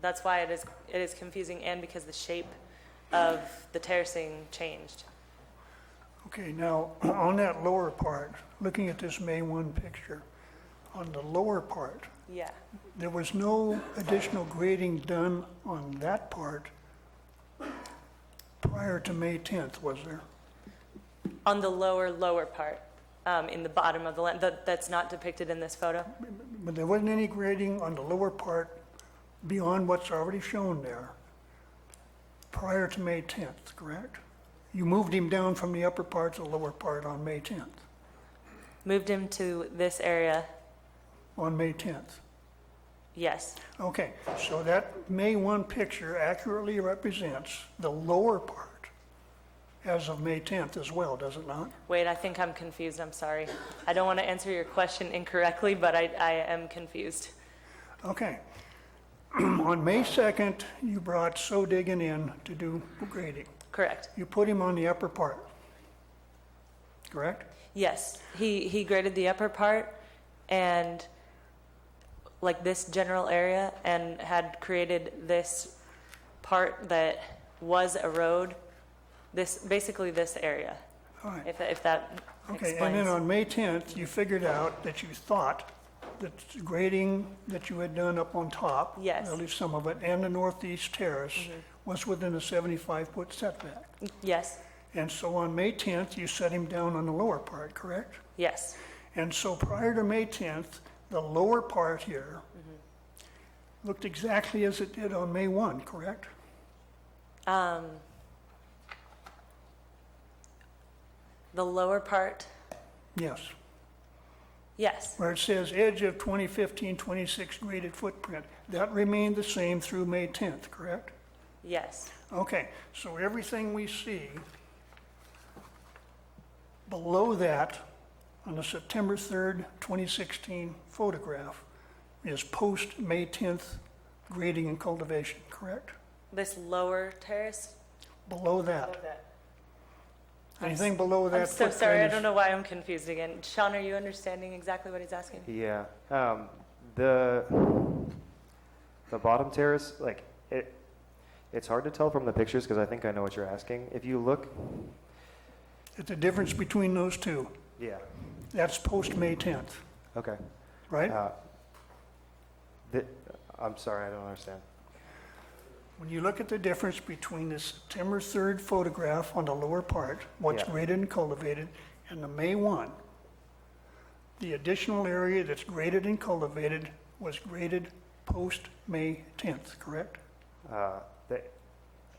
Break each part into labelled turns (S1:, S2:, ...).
S1: That's why it is, it is confusing and because the shape of the terracing changed.
S2: Okay, now, on that lower part, looking at this May 1 picture, on the lower part,
S1: Yeah.
S2: there was no additional grading done on that part prior to May 10th, was there?
S1: On the lower, lower part, um, in the bottom of the land, that, that's not depicted in this photo?
S2: But there wasn't any grading on the lower part beyond what's already shown there prior to May 10th, correct? You moved him down from the upper part to the lower part on May 10th,
S1: Moved him to this area,
S2: on May 10th.
S1: yes.
S2: Okay, so that May 1 picture accurately represents the lower part as of May 10th as well, does it not?
S1: Wait, I think I'm confused, I'm sorry. I don't want to answer your question incorrectly, but I, I am confused.
S2: Okay. On May 2nd, you brought So Diggin in to do grading.
S1: Correct.
S2: You put him on the upper part, correct?
S1: Yes, he, he graded the upper part and like this general area and had created this part that was a road, this, basically this area,
S2: All right.
S1: if, if that
S2: Okay, and then
S1: explains.
S2: on May 10th, you figured out that you thought that the grading that you had done up on top,
S1: Yes. Mm-hmm.
S2: at least some of it, and the northeast terrace was within a 75-foot setback.
S1: Yes,
S2: And so on May 10th, you set him down on the lower part, correct?
S1: yes,
S2: And so prior to May 10th, the lower part here looked exactly as it did on May 1, correct?
S1: um. The lower part,
S2: Yes,
S1: yes,
S2: where it says edge of 2015-26 graded footprint. That remained the same through May 10th, correct?
S1: yes,
S2: Okay, so everything we see below that on the September 3rd, 2016 photograph is post-May 10th grading and cultivation, correct?
S1: this lower terrace.
S2: Below that, anything below that
S1: I'm so sorry, I
S2: footprint
S1: don't
S2: is-
S1: know why I'm confused again. Sean, are you understanding exactly what he's asking?
S3: Yeah, um, the the bottom terrace, like it, it's hard to tell from the pictures because I think I know what you're asking. If you look,
S2: at the difference between those two,
S3: yeah,
S2: that's post-May 10th,
S3: okay.
S2: right?
S3: Uh, the, I'm sorry, I don't understand.
S2: When you look at the difference between the September 3rd photograph on the lower part, what's
S3: Yeah.
S2: graded and cultivated, and the May 1, the additional area that's graded and cultivated was graded post-May 10th, correct?
S3: Uh, the,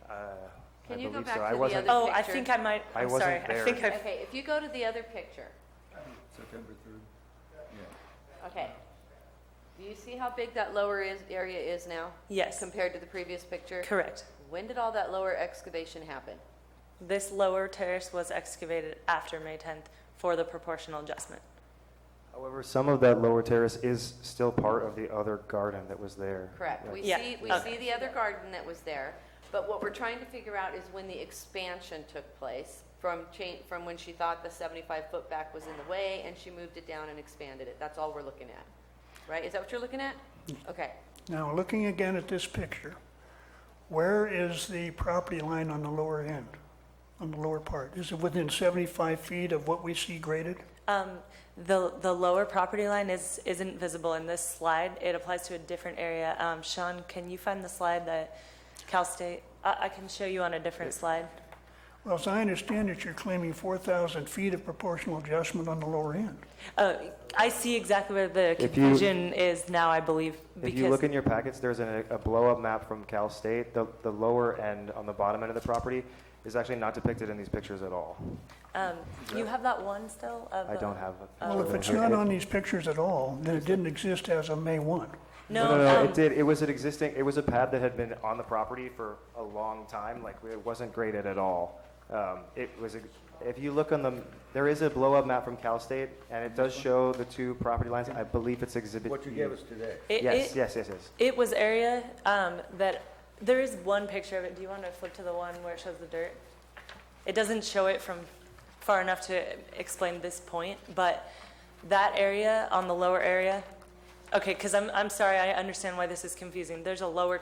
S3: uh, I
S4: Can you go
S3: believe
S4: back
S3: so.
S4: to
S3: I
S4: the
S3: wasn't.
S4: other-
S1: Oh, I
S4: picture.
S1: think I might,
S3: I
S1: I'm
S3: wasn't
S1: sorry. I
S3: there.
S1: think I,
S4: Okay, if you go to the other picture,
S5: September 3rd.
S4: okay. Do you see how big that lower is, area is now
S1: yes,
S4: compared to the previous picture?
S1: correct.
S4: When did all that lower excavation happen?
S1: This lower terrace was excavated after May 10th for the proportional adjustment.
S3: However, some of that lower terrace is still part of the other garden that was there.
S4: Correct.
S3: Like,
S4: We
S1: Yeah,
S4: see, we
S1: okay.
S4: see the other garden that was there, but what we're trying to figure out is when the expansion took place from change, from when she thought the 75-foot back was in the way and she moved it down and expanded it. That's all we're looking at, right? Is that what you're looking at?
S1: Mm-hmm.
S4: Okay.
S2: Now, looking again at this picture, where is the property line on the lower end, on the lower part? Is it within 75 feet of what we see graded?
S1: Um, The, the lower property line is, isn't visible in this slide. It applies to a different area. Um, Sean, can you find the slide that Cal State, I, I can show you on a different slide.
S2: Well, as I understand it, you're claiming 4,000 feet of proportional adjustment on the lower end.
S1: Uh, I see exactly where the
S3: If you-
S1: confusion is now, I believe,
S3: If you look
S1: because,
S3: in your packets, there's a, a blow-up map from Cal State. The, the lower end on the bottom end of the property is actually not depicted in these pictures at all.
S1: um, you have that one still? Uh, of
S3: I
S1: the-
S3: don't have. a
S2: Well, if
S3: picture
S2: it's
S3: of it.
S2: not on these pictures at all, then it didn't exist as of May 1.
S3: No, no, no,
S1: um,
S3: it did. It was an existing, it was a pad that had been on the property for a long time, like it wasn't graded at all. Um, It was, a- if you look on the, there is a blow-up map from Cal State, and it does show the two property lines. I believe it's exhibit.
S5: What you
S3: E.
S5: gave us today.
S1: It,
S3: Yes,
S1: it,
S3: yes, yes, yes.
S1: it was area um, that there is one picture of it. Do you want to flip to the one where it shows the dirt? It doesn't show it from far enough to explain this point, but that area on the lower area. Okay, because I'm, I'm sorry, I understand why this is confusing. There's a lower